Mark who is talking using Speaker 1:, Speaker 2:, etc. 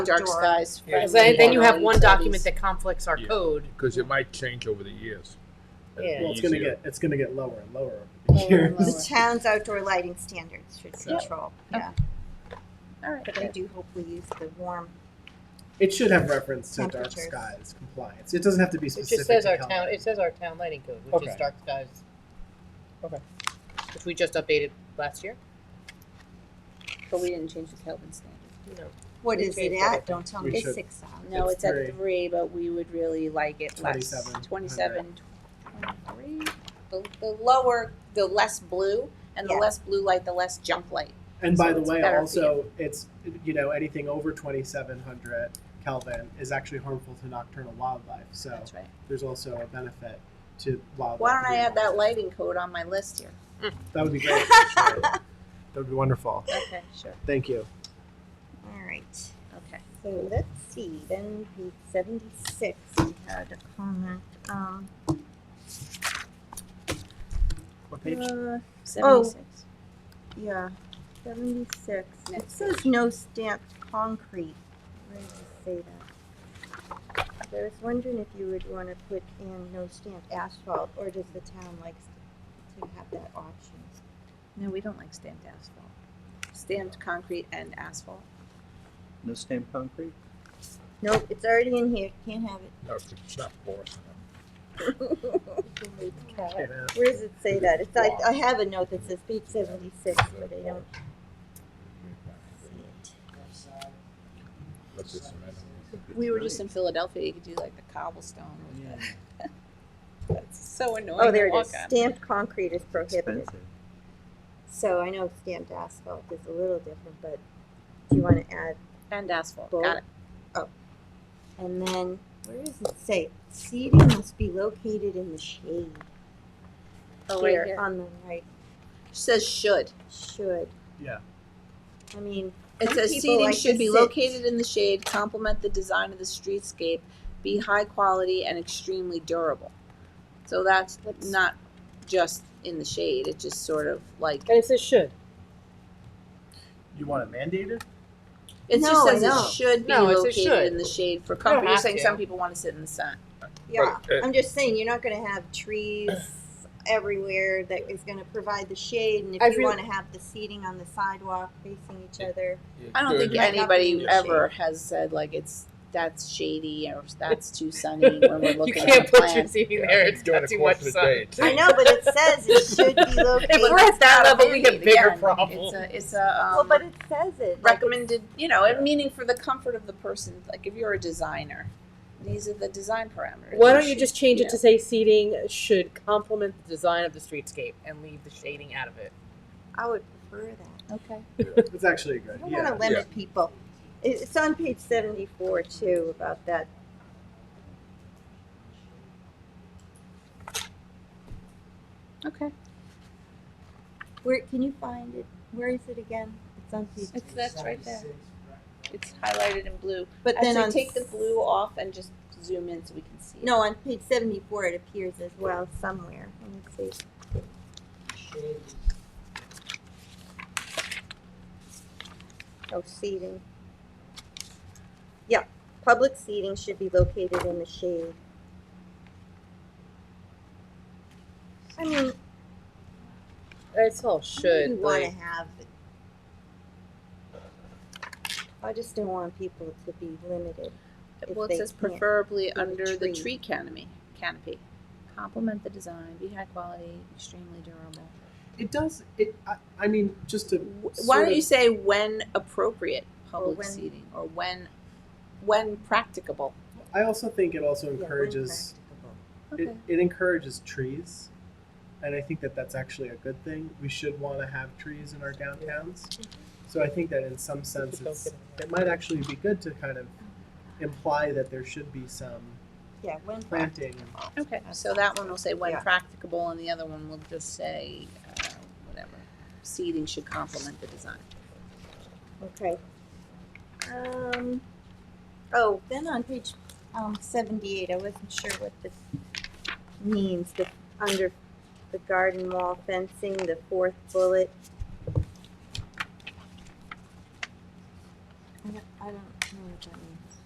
Speaker 1: dark skies.
Speaker 2: Yeah.
Speaker 3: Because then then you have one document that conflicts our
Speaker 4: Yeah.
Speaker 3: code.
Speaker 4: because it might change over the years. That'd
Speaker 3: Yeah.
Speaker 4: be
Speaker 2: Well, it's gonna
Speaker 4: easier.
Speaker 2: get, it's gonna get lower and lower
Speaker 1: Lower
Speaker 2: over the
Speaker 1: and
Speaker 2: years.
Speaker 1: lower.
Speaker 5: The town's outdoor lighting standards should
Speaker 2: Yeah.
Speaker 5: control, yeah,
Speaker 1: All right.
Speaker 5: but I do hope we use the warm.
Speaker 2: It should have reference to dark
Speaker 5: Temperatures.
Speaker 2: skies compliance. It doesn't have to be
Speaker 3: It
Speaker 2: specific.
Speaker 3: just says
Speaker 2: to
Speaker 3: our
Speaker 2: Cal-
Speaker 3: town, it says our town lighting code, which is
Speaker 2: Okay.
Speaker 3: dark skies. Okay. Which we just updated last year?
Speaker 1: But we didn't change the Kelvin standard.
Speaker 3: No.
Speaker 5: What
Speaker 3: We
Speaker 5: is it
Speaker 3: changed
Speaker 5: at?
Speaker 3: everything.
Speaker 5: Don't tell me
Speaker 2: We
Speaker 5: it's
Speaker 2: should-
Speaker 5: six uh, thousand.
Speaker 1: No, it's
Speaker 2: It's
Speaker 1: at
Speaker 2: three.
Speaker 1: three, but we would really like it less.
Speaker 2: 27.
Speaker 1: Twenty-seven, twenty-three. The, the lower, the less blue, and the
Speaker 5: Yeah.
Speaker 1: less blue light, the less jump light.
Speaker 2: And by
Speaker 1: so
Speaker 2: the
Speaker 1: it's
Speaker 2: way,
Speaker 1: better for
Speaker 2: also, it's, you know, anything over twenty-seven hundred Kelvin is actually harmful to nocturnal wildlife, so
Speaker 1: That's right.
Speaker 2: there's also a benefit to wildlife.
Speaker 1: Why don't I
Speaker 2: being
Speaker 1: add that
Speaker 2: harmful.
Speaker 1: lighting code on my list here?
Speaker 2: That would be great. actually. That would be wonderful.
Speaker 1: Okay, sure.
Speaker 2: Thank you.
Speaker 5: All right.
Speaker 1: Okay.
Speaker 5: So let's see, then page seventy-six, we had a comment, um,
Speaker 2: What page?
Speaker 5: uh,
Speaker 1: Oh. Seventy-six.
Speaker 5: yeah, seventy-six. It
Speaker 1: Next
Speaker 5: says no stamped concrete. Where does it say that? I was wondering if you would wanna put in no stamped asphalt, or does the town like to have that option?
Speaker 1: No, we don't like stamped asphalt. Stamped concrete and asphalt.
Speaker 6: No stamped concrete?
Speaker 5: Nope, it's already in here, can't have it.
Speaker 4: No, it's not for us.
Speaker 5: Where does it say that? It's, I, I have a note that says page seventy-six, but I don't see it.
Speaker 4: Let's just amend it.
Speaker 1: We were just in Philadelphia, you could do like the cobblestone with
Speaker 6: Yeah.
Speaker 1: it. That's so annoying.
Speaker 5: Oh,
Speaker 1: to
Speaker 5: there it is.
Speaker 1: walk on.
Speaker 5: Stamped concrete is prohibited.
Speaker 6: Expensive.
Speaker 5: So I know stamped asphalt is a little different, but do you want to add,
Speaker 1: And asphalt, got it.
Speaker 5: Oh. and then, where does it say? Seating must be located in the shade.
Speaker 1: Oh, right here.
Speaker 5: On the right,
Speaker 1: Says should.
Speaker 5: should.
Speaker 2: Yeah.
Speaker 5: I mean,
Speaker 1: It
Speaker 5: Some
Speaker 1: says
Speaker 5: people
Speaker 1: seating
Speaker 5: like
Speaker 1: should
Speaker 5: to
Speaker 1: be
Speaker 5: sit.
Speaker 1: located in the shade, complement the design of the streetscape, be high quality and extremely durable. So that's
Speaker 3: That's-
Speaker 1: not just in the shade, it just sort of like,
Speaker 3: And it says should.
Speaker 2: You want it mandated?
Speaker 1: it
Speaker 5: No,
Speaker 1: just
Speaker 5: I
Speaker 1: says
Speaker 5: know.
Speaker 1: it should be
Speaker 3: No, it says
Speaker 1: located
Speaker 3: should.
Speaker 1: in the shade for comfort. You're
Speaker 3: have
Speaker 1: saying
Speaker 3: to.
Speaker 1: some people wanna sit in the sun.
Speaker 5: yeah,
Speaker 4: But, uh,
Speaker 5: I'm just saying, you're not gonna have trees everywhere that is gonna provide the shade, and
Speaker 3: I
Speaker 5: if you
Speaker 3: really-
Speaker 5: wanna have the seating on the sidewalk facing each other.
Speaker 1: I don't think
Speaker 5: Might not be in
Speaker 1: anybody
Speaker 5: the
Speaker 1: ever has said like it's, that's shady or that's too sunny when we're
Speaker 3: You
Speaker 1: looking at
Speaker 3: can't
Speaker 1: a
Speaker 3: put your
Speaker 1: plan.
Speaker 3: seating
Speaker 4: Yeah,
Speaker 3: there,
Speaker 4: I'm
Speaker 3: it's
Speaker 4: doing
Speaker 3: got
Speaker 4: it
Speaker 3: too
Speaker 4: close
Speaker 3: much
Speaker 4: to the
Speaker 3: sun.
Speaker 4: date.
Speaker 5: I know, but it says it should be located.
Speaker 3: If we're at that level, we have bigger
Speaker 1: Again,
Speaker 3: problems.
Speaker 1: It's a, it's a, um.
Speaker 5: Well, but it says it. like it's-
Speaker 1: recommended, you know, and meaning for the comfort of the person. Like if you're a designer, these are the design parameters.
Speaker 3: Why don't you just change
Speaker 1: yeah.
Speaker 3: it to say seating should complement the design of the streetscape and leave the shading out of it?
Speaker 5: I would prefer that.
Speaker 1: Okay.
Speaker 2: It's actually good,
Speaker 5: I don't
Speaker 2: yeah.
Speaker 5: want to limit people. It- It's on page seventy-four too about that.
Speaker 1: Okay.
Speaker 5: Where can you find it? Where is it again? It's on page.
Speaker 1: It's that's right there. It's highlighted in blue.
Speaker 5: But then
Speaker 1: Actually,
Speaker 5: on
Speaker 1: take the blue off and just zoom in so we can see. it.
Speaker 5: No, on page seventy-four it appears as well somewhere. Let me see. Oh, seating. Yeah, public seating should be located in the shade. I mean,
Speaker 3: It's all should.
Speaker 5: You
Speaker 3: like-
Speaker 5: want to have. it. I just don't want people to be limited. if
Speaker 1: Well,
Speaker 5: they
Speaker 1: it says
Speaker 5: can't
Speaker 1: preferably
Speaker 5: see the
Speaker 1: under the
Speaker 5: tree.
Speaker 1: tree canopy. Canopy. Complement the design. Be high quality. Extremely durable.
Speaker 2: It does, it, I, I mean, just to.
Speaker 1: Why
Speaker 2: sort
Speaker 1: don't
Speaker 2: of-
Speaker 1: you say when appropriate public
Speaker 5: when-
Speaker 1: seating or when when practicable?
Speaker 2: I also think it also
Speaker 5: Yeah, when
Speaker 2: encourages,
Speaker 5: practicable.
Speaker 2: it, it encourages trees. And I think that that's actually a good thing. We should want to have trees in our downtowns. So I think that in some sense,
Speaker 3: Just don't
Speaker 2: it's,
Speaker 3: get in the way.
Speaker 2: it might actually be good to kind of imply that there should be some
Speaker 5: Yeah, when practicable.
Speaker 2: planting.
Speaker 1: Okay, so that one will say when
Speaker 5: Yeah.
Speaker 1: practicable, and the other one will just say, uh, whatever, seating should complement the design.
Speaker 5: Okay. Um, oh, then on page, um, seventy-eight, I wasn't sure what this means, the, under the garden wall fencing, the fourth bullet. I don't, I don't know what what that means.